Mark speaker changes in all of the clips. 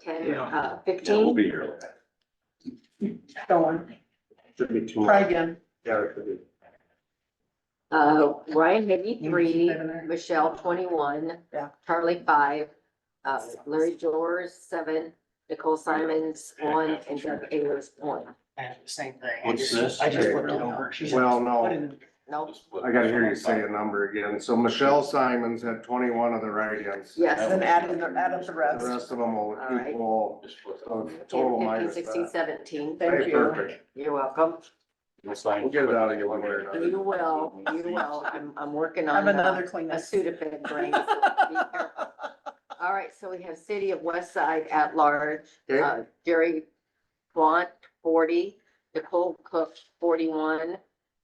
Speaker 1: ten,
Speaker 2: Yeah.
Speaker 1: uh,
Speaker 2: Yeah, we'll
Speaker 1: fifteen.
Speaker 2: be here.
Speaker 3: Going,
Speaker 2: Should be two.
Speaker 3: try again.
Speaker 2: Yeah, it should be.
Speaker 1: Uh, Ryan Higgy,
Speaker 4: Mm-hmm.
Speaker 1: three,
Speaker 3: Seven there.
Speaker 1: Michelle, twenty-one.
Speaker 3: Yeah.
Speaker 1: Charlie, five, uh, Larry Jor's, seven, Nicole Simons, one, and Doug Ayers, one.
Speaker 4: And the same thing. I
Speaker 5: What's
Speaker 4: just-
Speaker 5: this?
Speaker 4: I just looked it over. She said,
Speaker 6: Well, no.
Speaker 4: "What in
Speaker 1: Nope,
Speaker 6: I gotta hear you say a number again. So Michelle Simons had twenty-one of the write-ins.
Speaker 1: yes.
Speaker 3: Then add in the, add up the
Speaker 6: The
Speaker 3: rest.
Speaker 6: rest of them will
Speaker 1: Alright.
Speaker 6: equal
Speaker 5: Just put
Speaker 6: of total
Speaker 1: Fifteen,
Speaker 6: minus
Speaker 1: sixteen,
Speaker 6: that.
Speaker 1: seventeen.
Speaker 3: Thank
Speaker 6: Hey,
Speaker 3: you.
Speaker 6: Perfect.
Speaker 1: You're welcome.
Speaker 5: the sign.
Speaker 6: We'll get it out of you one way or another.
Speaker 1: You will, you will. I'm, I'm working
Speaker 3: I
Speaker 1: on.
Speaker 3: have another
Speaker 1: uh, A
Speaker 3: Kleenex.
Speaker 1: Sudafed brain. so be careful. All right, so we have City of West Side at large,
Speaker 6: Okay,
Speaker 1: uh, Jerry Blunt, forty, Nicole Cook, forty-one,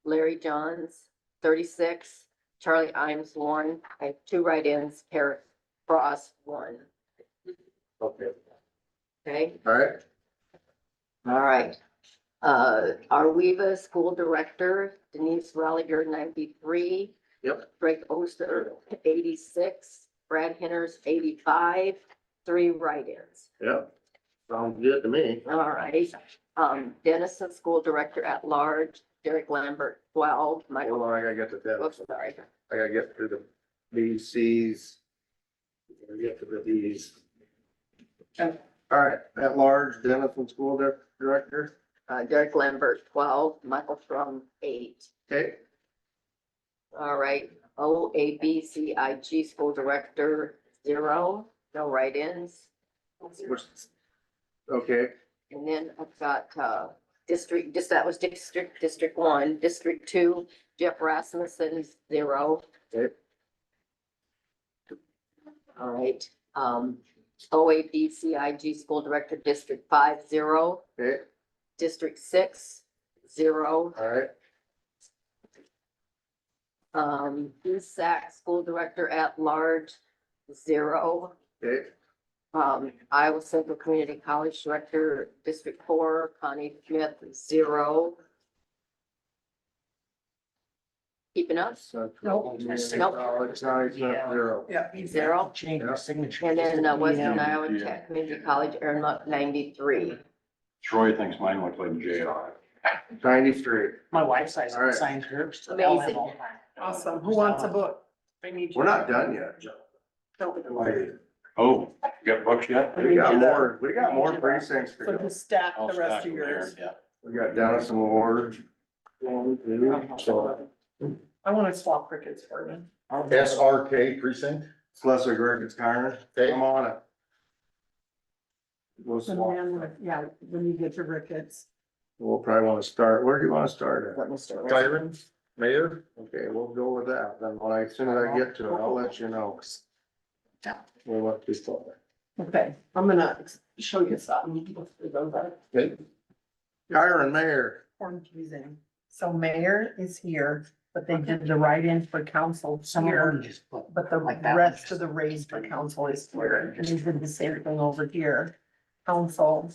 Speaker 1: Larry Johns, thirty-six, Charlie Imes, one, I have two write-ins, Parrot Frost, one,
Speaker 2: Okay.
Speaker 1: okay?
Speaker 6: alright.
Speaker 1: All right. Uh, our Weva School Director Denise Rolliger, ninety-three.
Speaker 6: Yep.
Speaker 1: Greg Oster, eighty-six, Brad Henners, eighty-five, three write-ins.
Speaker 6: Yep. Sounds good to me.
Speaker 1: All right. Um, Dennison School Director at Large, Derek Lambert, twelve,
Speaker 6: Hold
Speaker 1: Michael,
Speaker 6: on, I gotta get to
Speaker 1: oops,
Speaker 6: that.
Speaker 1: sorry.
Speaker 6: I gotta get through the B Cs. Gotta Get to the Ds.
Speaker 3: Okay.
Speaker 6: Alright, Oh. at large, Dennison School Dir- Director,
Speaker 1: Uh, Derek Lambert, twelve, Michael From, eight.
Speaker 6: okay?
Speaker 1: All right, O A B C I G School Director, zero, no write-ins.
Speaker 6: Which, okay,
Speaker 1: And then I've got, uh, district, just, that was district, district one, district two, Jeff Rasmussen, zero.
Speaker 6: Okay.
Speaker 1: All right, um, OABCIG school director, district five, zero,
Speaker 6: okay,
Speaker 1: district six, zero.
Speaker 6: alright,
Speaker 1: Um, ESAC school director at large, zero.
Speaker 6: okay,
Speaker 1: Um, Iowa Central Community College Director, District Four, Connie Smith, zero. Keeping up,
Speaker 6: Central. Community
Speaker 1: Nope.
Speaker 6: College, now he's at zero.
Speaker 3: Yeah.
Speaker 4: the-"
Speaker 1: Zero.
Speaker 4: Change
Speaker 6: Yeah.
Speaker 4: the signature.
Speaker 1: and then uh, Western
Speaker 4: Yeah.
Speaker 1: Iowa Tech Community College, Aaron Monk, ninety-three.
Speaker 5: Troy thinks mine look like JR.
Speaker 6: Ninety-three.
Speaker 4: My wife's size
Speaker 6: All right.
Speaker 4: signs hers. so they'll have
Speaker 1: Amazing.
Speaker 4: all-
Speaker 3: Awesome. Who wants a book?
Speaker 6: We're not done yet.
Speaker 5: Oh, you got books yet?
Speaker 6: We got more, we got more precincts to
Speaker 3: So
Speaker 6: go.
Speaker 3: just stack
Speaker 5: I'll
Speaker 3: the rest
Speaker 5: stack
Speaker 3: of
Speaker 5: them there,
Speaker 3: yours.
Speaker 5: Yeah.
Speaker 6: We got Dennison Ward. One, two, so
Speaker 3: I want to swap crickets for you.
Speaker 2: SRK precinct?
Speaker 6: It's Lesser Griffin's Corner, I'm on it. We'll,
Speaker 3: And
Speaker 6: swap.
Speaker 3: then, like, yeah, when you get your rickets.
Speaker 6: we'll probably wanna start, where do you wanna start at?
Speaker 1: Let me start. with-
Speaker 2: Tyron, mayor?
Speaker 6: Okay, we'll go with that, then when I, as soon as I get to it, I'll let you know. We'll let this go.
Speaker 3: Okay, I'm gonna show you something.
Speaker 6: Okay. Kyron Mayor,
Speaker 3: Confusing. So mayor is here, but they did the write-in for council
Speaker 4: Some of
Speaker 3: here.
Speaker 4: them just put
Speaker 3: But the
Speaker 4: Like that one,
Speaker 3: rest
Speaker 4: just-
Speaker 3: of the raise for council is here, and they did the same thing over here. Council,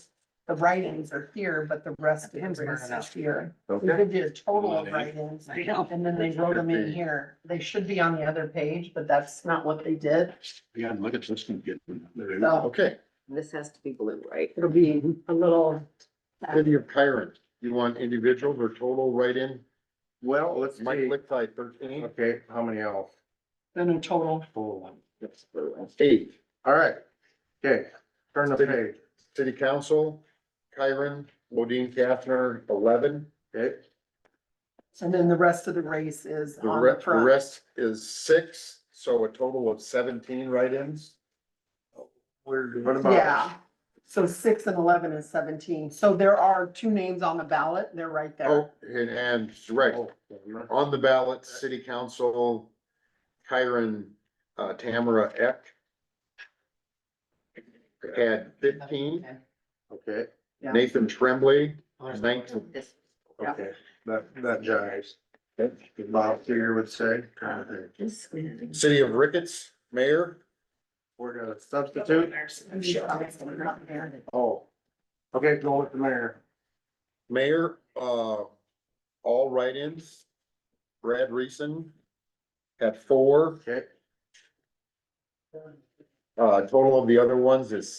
Speaker 3: the write-ins are here, but the rest of the
Speaker 4: Hands burning
Speaker 3: raise
Speaker 4: up.
Speaker 3: is here. They
Speaker 6: okay,
Speaker 3: did a total of write-ins,
Speaker 4: I know.
Speaker 3: and then they wrote them in here. They should be on the other page, but that's not what they did.
Speaker 5: Yeah, look at this one getting.
Speaker 3: So
Speaker 2: Okay,
Speaker 1: This has to be blue, right?
Speaker 3: it'll be a little,
Speaker 2: city of Kyron, you want individual or total write-in?
Speaker 6: well, let's
Speaker 2: Mike
Speaker 6: see,
Speaker 2: Lickthi, thirteen.
Speaker 6: okay, how many else?
Speaker 3: then a total.
Speaker 2: Eight,
Speaker 6: Alright, okay, turn the page,
Speaker 2: city council, Kyron, Modine Kathner, eleven.
Speaker 6: okay?
Speaker 3: And then the rest of the race is
Speaker 2: The
Speaker 3: on the
Speaker 2: rest, the
Speaker 3: front.
Speaker 2: rest is six, so a total of seventeen write-ins.
Speaker 6: We're, what about?
Speaker 3: Yeah, so six and eleven is seventeen. So there are two names on the ballot. They're right there.
Speaker 2: Oh, and, and, right,
Speaker 6: Oh,
Speaker 2: on the ballot, city council, Kyron, uh, Tamara Eck. Had fifteen,
Speaker 6: Okay,
Speaker 3: Yeah.
Speaker 2: Nathan Tremblay, nineteen,
Speaker 1: This,
Speaker 6: okay, that, that jives. Bob Seger would say.
Speaker 1: this is-
Speaker 2: city of Ricketts, mayor,
Speaker 6: We're gonna substitute. Oh. Okay, go with the mayor.
Speaker 2: mayor, uh, all write-ins. Brad Reason at four,
Speaker 6: Okay.
Speaker 2: uh, total of the other ones is